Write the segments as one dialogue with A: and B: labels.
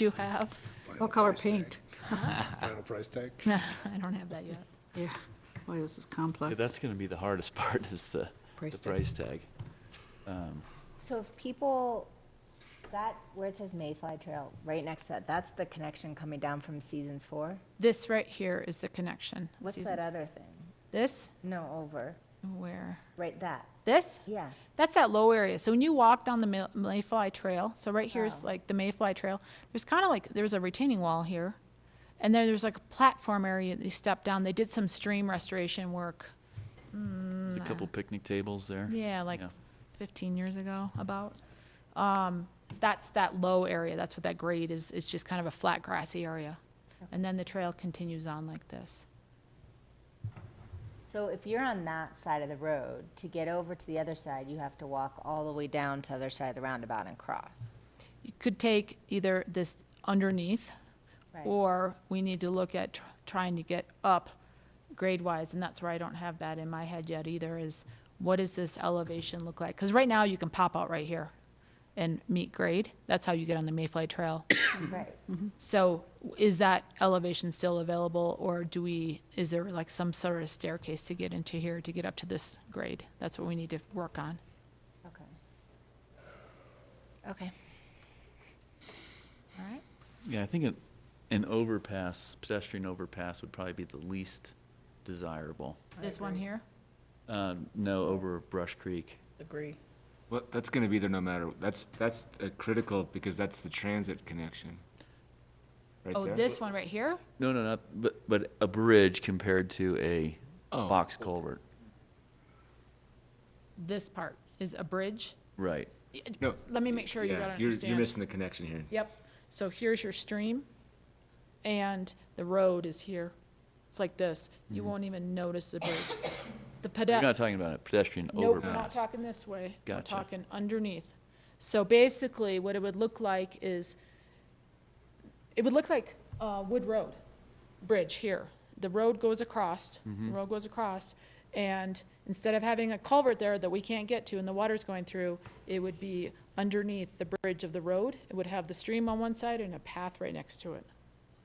A: you have?
B: Final
C: What color
B: price tag.
C: paint?
B: Final price tag?
A: No, I don't have that yet.
C: Yeah, boy, this is
D: Yeah,
C: complex.
D: that's going to be the hardest part is the,
C: Price
D: the
C: tag.
D: price tag. Um,
E: So if people, that, where it says Mayfly Trail, right next to that, that's the connection coming down from Seasons Four?
A: This right here is the connection.
E: What's
A: Susan's-
E: that other thing?
A: This,
E: No, over,
A: where,
E: right that,
A: this?
E: yeah.
A: That's that low area. So when you walk down the Ma- Mayfly Trail, so right here is
E: Wow.
A: like the Mayfly Trail, there's kind of like, there's a retaining wall here. And then there's like a platform area that you step down. They did some stream restoration work.
D: a couple picnic tables there.
A: Mm. Yeah, like
D: Yeah.
A: 15 years ago, about. Um, That's that low area, that's what that grade is, it's just kind of a flat grassy area. And then the trail continues on like this.
E: So if you're on that side of the road, to get over to the other side, you have to walk all the way down to the other side of the roundabout and cross.
A: You could take either this underneath,
E: Right.
A: or we need to look at tr- trying to get up grade-wise, and that's where I don't have that in my head yet either, is what does this elevation look like? Because right now, you can pop out right here and meet grade, that's how you get on the Mayfly Trail.
E: Right.
A: So is that elevation still available, or do we, is there like some sort of staircase to get into here to get up to this grade? That's what we need to work on.
E: Okay. Okay.
A: All right.
D: Yeah, I think an, an overpass, pedestrian overpass would probably be the least desirable.
A: This one here?
D: Um, no, over Brush Creek.
F: Agree.
G: Well, that's gonna be there no matter, that's, that's uh, critical, because that's the transit connection. Right
A: Oh,
G: there.
A: this one right here?
D: No, no, not, but, but a bridge compared to a
G: Oh.
D: box culvert.
A: This part is a bridge?
D: Right.
G: No.
A: Let me make sure you
G: yeah,
A: gotta
G: you're-
A: understand.
G: You're missing the connection here.
A: Yep, so here's your stream, and the road is here. It's like this, you
G: Mm-hmm.
A: won't even notice the bridge. The
D: You're
A: pedestrian.
D: not talking about a pedestrian
A: Nope, we're not
D: overpass.
A: talking this way. We're
D: Gotcha.
A: talking underneath. So basically, what it would look like is, it would look like uh, Wood Road Bridge here. The road goes across,
D: Mm-hmm.
A: the road goes across, and instead of having a culvert there that we can't get to and the water's going through, it would be underneath the bridge of the road. It would have the stream on one side and a path right next to it.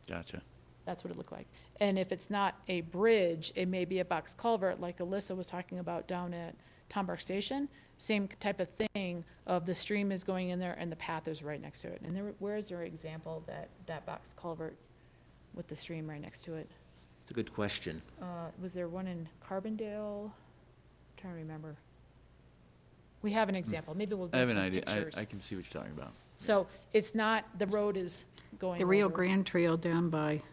D: Gotcha.
A: That's what it looked like. And if it's not a bridge, it may be a box culvert, like Alyssa was talking about down at Tombark Station. Same type of thing of the stream is going in there and the path is right next to it. And there, where is your example that, that box culvert with the stream right next to it?
H: It's a good question.
A: Uh, was there one in Carbondale? Trying to remember. We have an example. Maybe we'll
D: I
A: get
D: have an
A: some
D: idea. I,
A: pictures.
D: I can see what you're talking about.
A: So it's not, the road is going
C: The Rio
A: over.
C: Grande Trail down by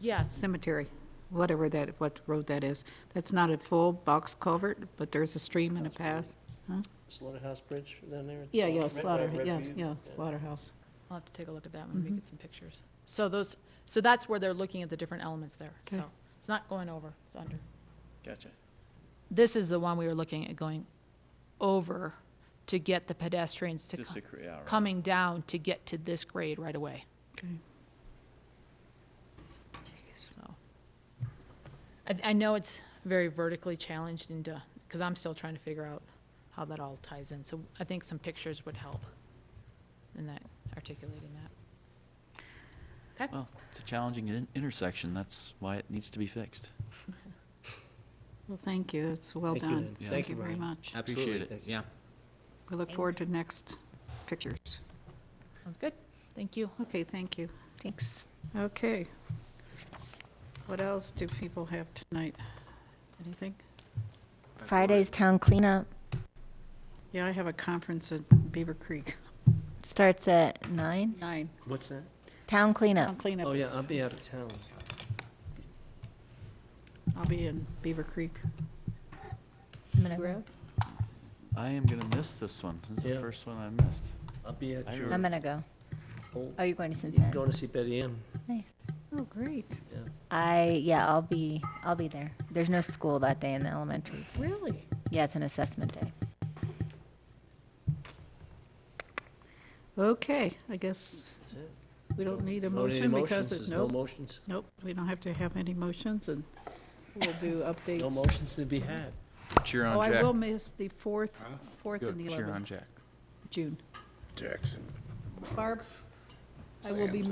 A: Yes,
C: cemetery, whatever that, what road that is. That's not a full box culvert, but there's a stream and a path.
F: Slaughterhouse Bridge down there?
C: Yeah,
F: Red-
C: yeah,
F: red-
C: slaughter,
F: red
C: yeah,
F: bead?
C: yeah, slaughterhouse.
A: I'll have to take a look at that when we get some pictures. So those, so that's where they're looking at the different elements there, so
C: Okay.
A: it's not going over, it's under.
D: Gotcha.
A: This is the one we were looking at going over to get the pedestrians to
D: Just
A: co-
D: to create, all right.
A: coming down to get to this grade right away. So, I, I know it's very vertically challenged and, because I'm still trying to figure out how that all ties in, so I think some pictures would help in that, articulating that. Okay?
D: Well, it's a challenging in- intersection. That's why it needs to be fixed.
C: Well, thank you, it's well
H: Thank you,
C: done.
H: Lynn.
C: Thank you very
H: Brian.
C: much.
D: Appreciate
H: Absolutely. Yeah.
C: We look forward to next pictures.
A: Sounds good. Thank you.
C: Okay, thank you.
E: Thanks.
C: Okay. What else do people have tonight? Anything?
E: Friday's town cleanup
C: Yeah, I have a conference at Beaver Creek,
E: starts at nine.
C: nine,
F: What's that?
E: Town
C: I'll
E: cleanup.
C: clean up.
F: Oh, yeah,
C: this-
F: I'll be out of town.
C: I'll be in Beaver Creek.
E: I'm gonna go.
D: I am going to miss this one. This is the
F: Yeah.
D: first one I missed.
F: I'll be at
D: I
F: your,
E: I'm gonna go.
F: oh,
E: Oh, you're going to
F: you're
E: Cincinnati?
F: going to see Betty Ann.
E: Nice.
C: Oh, great.
F: Yeah.
E: I, yeah, I'll be, I'll be there. There's no school that day in the elementaries.
C: Really?
E: Yeah, it's an assessment day.
C: Okay, I guess
F: That's it.
C: we don't need a
F: No need
C: motion because
F: emotions.
C: it,
F: There's no
C: nope,
F: motions.
C: nope, we don't have to have any motions and we'll do updates.
F: No motions to be had.
I: Cheer
C: Oh,
I: on
C: I will
I: Jack.
C: miss the fourth, fourth and the
I: Cheer on
C: eleventh,
I: Jack.
C: June.
B: Jackson.
C: Barb, I will be